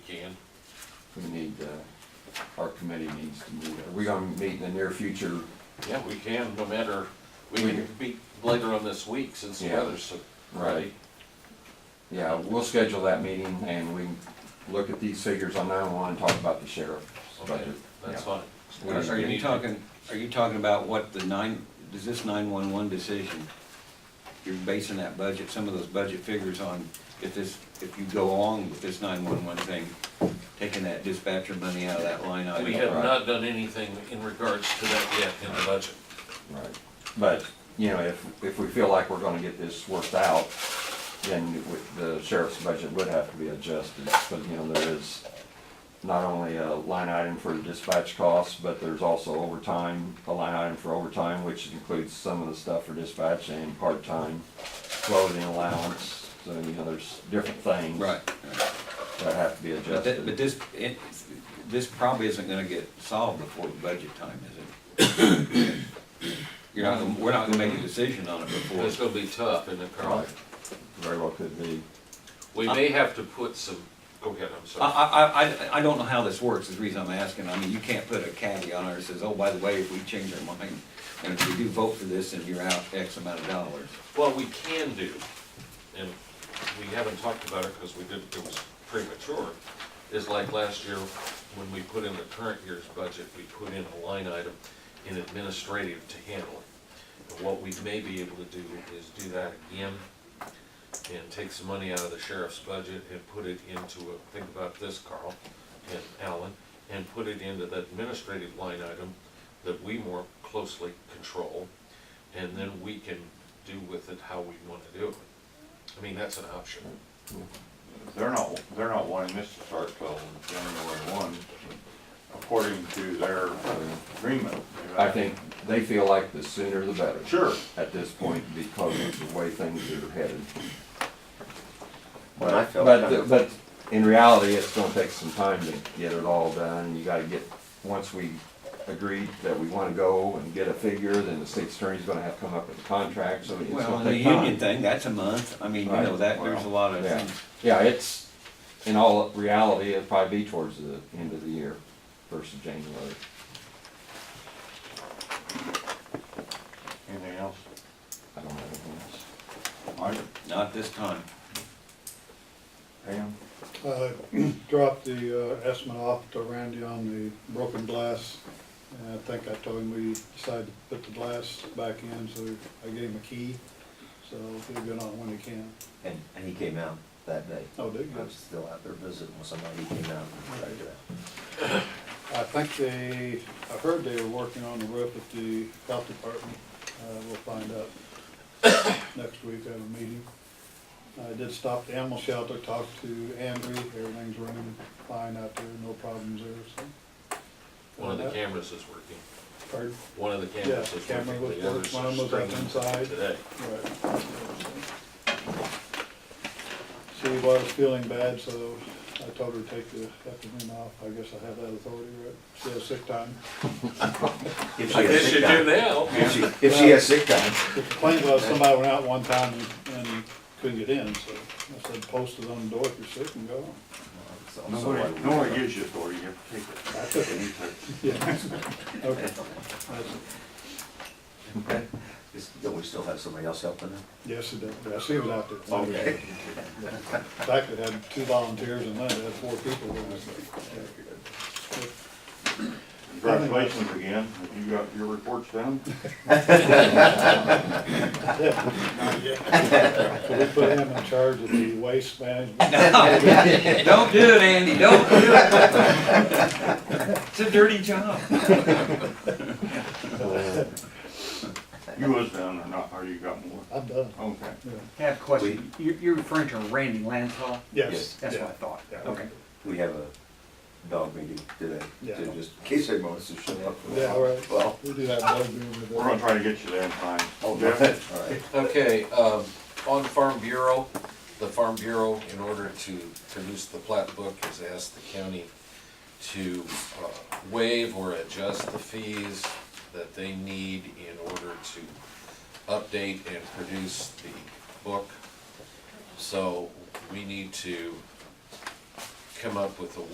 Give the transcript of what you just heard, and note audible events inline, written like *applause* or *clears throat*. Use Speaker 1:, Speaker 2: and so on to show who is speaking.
Speaker 1: we need, uh, our committee needs to meet. Are we gonna meet in the near future?
Speaker 2: Yeah, we can, no matter, we can be later on this week since the
Speaker 1: Yeah.
Speaker 2: weather's so.
Speaker 1: Right. Yeah, we'll schedule that meeting and we can look at these figures on nine one and talk about the sheriff's
Speaker 2: Okay,
Speaker 1: budget.
Speaker 2: that's
Speaker 1: Yeah.
Speaker 2: fine.
Speaker 1: We
Speaker 3: Are
Speaker 1: need-
Speaker 3: you talking, are you talking about what the nine, is this nine-one-one decision? You're basing that budget, some of those budget figures on if this, if you go along with this nine-one-one thing, taking that dispatcher money out of that line item.
Speaker 2: We have not done anything in regards to that yet in the budget.
Speaker 1: Right, but, you know, if, if we feel like we're gonna get this worked out, then it would- the sheriff's budget would have to be adjusted, because, you know, there is not only a line item for dispatch costs, but there's also overtime, a line item for overtime, which includes some of the stuff for dispatch and part-time clothing allowance, so, you know, there's different things
Speaker 3: Right, right.
Speaker 1: that have to be
Speaker 3: but thi- but
Speaker 1: adjusted.
Speaker 3: this, it, this probably isn't gonna get solved before budget time, is it? *coughs* You're not, gonna- we're not gonna make a decision on it before.
Speaker 2: It's gonna be tough in the
Speaker 1: Right.
Speaker 2: current.
Speaker 1: Very well could be,
Speaker 2: We may have to put some, go ahead, I'm
Speaker 3: I,
Speaker 2: sorry.
Speaker 3: I, I, I don't know how this works, is the reason I'm asking, I mean, you can't put a caveat on it that says, oh, by the way, if we change our mind, and if we do vote for this, then you're out X amount of dollars.
Speaker 2: Well, we can do, and we haven't talked about it because we didn't, it was premature, is like last year, when we put in the current year's budget, we put in a line item in administrative to handle it. And what we may be able to do is do that again, and take some money out of the sheriff's budget and put it into, a think about this, Carl and Alan, and put it into the administrative line item that we more closely control, and then we can do with it how we want to do it. I mean, that's an option.
Speaker 4: They're not, they're not wanting this to start till January one, according to their agreement.
Speaker 1: I think they feel like the sooner the better.
Speaker 4: Sure,
Speaker 1: at this point because of the way things are headed.
Speaker 5: Well, I
Speaker 1: But,
Speaker 5: felt kind
Speaker 1: but,
Speaker 5: of-
Speaker 1: but in reality, it's gonna take some time to get it all done. You gotta get, once we agree that we wanna go and get a figure, then the state attorney's gonna have to come up with a contract, so it's
Speaker 3: Well,
Speaker 1: gonna
Speaker 3: and the
Speaker 1: take
Speaker 3: union
Speaker 1: time.
Speaker 3: thing, that's a month, I mean, you know,
Speaker 1: Right.
Speaker 3: that, there's a lot of
Speaker 1: Yeah,
Speaker 3: things.
Speaker 1: yeah, it's, in all reality, it'll probably be towards the end of the year, first of January.
Speaker 4: anything else?
Speaker 1: I don't know anything else.
Speaker 4: Mike,
Speaker 3: Not this time.
Speaker 4: Pam?
Speaker 6: Uh, *clears throat* Dropped the uh, estimate off to Randy on the broken glass, and I think I told him we decided to put the glass back in, so I gave him a key, so he'll get on when he can.
Speaker 5: And, and he came out that day.
Speaker 6: Oh, did he?
Speaker 5: I was still out there visiting with somebody, he came out and tried it out.
Speaker 6: I think they, I heard they were working on the roof at the health department, uh, we'll find out next week, I have a meeting. I did stop the animal shelter, talked to Andrew, everything's running fine out there, no problems there, so. Uh,
Speaker 2: One of the cameras is working.
Speaker 6: Pardon?
Speaker 2: One of the cameras
Speaker 6: Yeah,
Speaker 2: is
Speaker 6: camera
Speaker 2: working.
Speaker 6: was
Speaker 2: The others
Speaker 6: working, one of
Speaker 2: are
Speaker 6: them was up
Speaker 2: screaming
Speaker 6: inside.
Speaker 2: Today.
Speaker 6: Right. She was feeling bad, so I told her to take the afternoon off. I guess I have that authority, right? She has sick time.
Speaker 5: If
Speaker 2: I
Speaker 5: she has
Speaker 2: guess you do
Speaker 5: sick time.
Speaker 2: now.
Speaker 5: If she, if she has sick time,
Speaker 6: The complaint was somebody went out one time and- and couldn't get in, so I said, post it on the door if you're sick and go.
Speaker 5: so- so
Speaker 4: Nobody,
Speaker 5: what?
Speaker 4: nobody gives you authority, you have to take it.
Speaker 6: I took
Speaker 4: And he took it.
Speaker 6: *laughs* Yeah. Okay. That's-
Speaker 5: Okay. Just- Don't we still have somebody else helping them?
Speaker 6: Yes, it did. I see it out there. In fact, it had two volunteers and then it had four people. in it, so, yeah.
Speaker 4: Congratulations again, have you got your reports done?
Speaker 6: So we put him in charge of the waste management.
Speaker 3: Don't do it, Andy, don't do
Speaker 5: *laughs*
Speaker 3: it. It's a dirty job.
Speaker 4: You was done or not, or you got more?
Speaker 6: I'm done.
Speaker 4: Okay.
Speaker 6: Yeah.
Speaker 7: I have a question. You're, you're referring to Randy Lansall?
Speaker 6: Yes.
Speaker 7: That's
Speaker 6: yeah.
Speaker 7: what I thought.
Speaker 6: Yeah.
Speaker 7: Okay.
Speaker 5: We have a dog meeting today,
Speaker 6: Yeah.
Speaker 5: to just, in case anyone wants to show up.
Speaker 6: Yeah, all right.
Speaker 5: Well,
Speaker 6: We do that. dog beer with
Speaker 4: We're gonna try to get you there in time.
Speaker 5: oh, no,
Speaker 4: Jeff?
Speaker 5: all right.
Speaker 2: Okay, um, on Farm Bureau, the Farm Bureau, in order to produce the plat book, has asked the county to uh, waive or adjust the fees that they need in order to update and produce the book. So we need to come up with a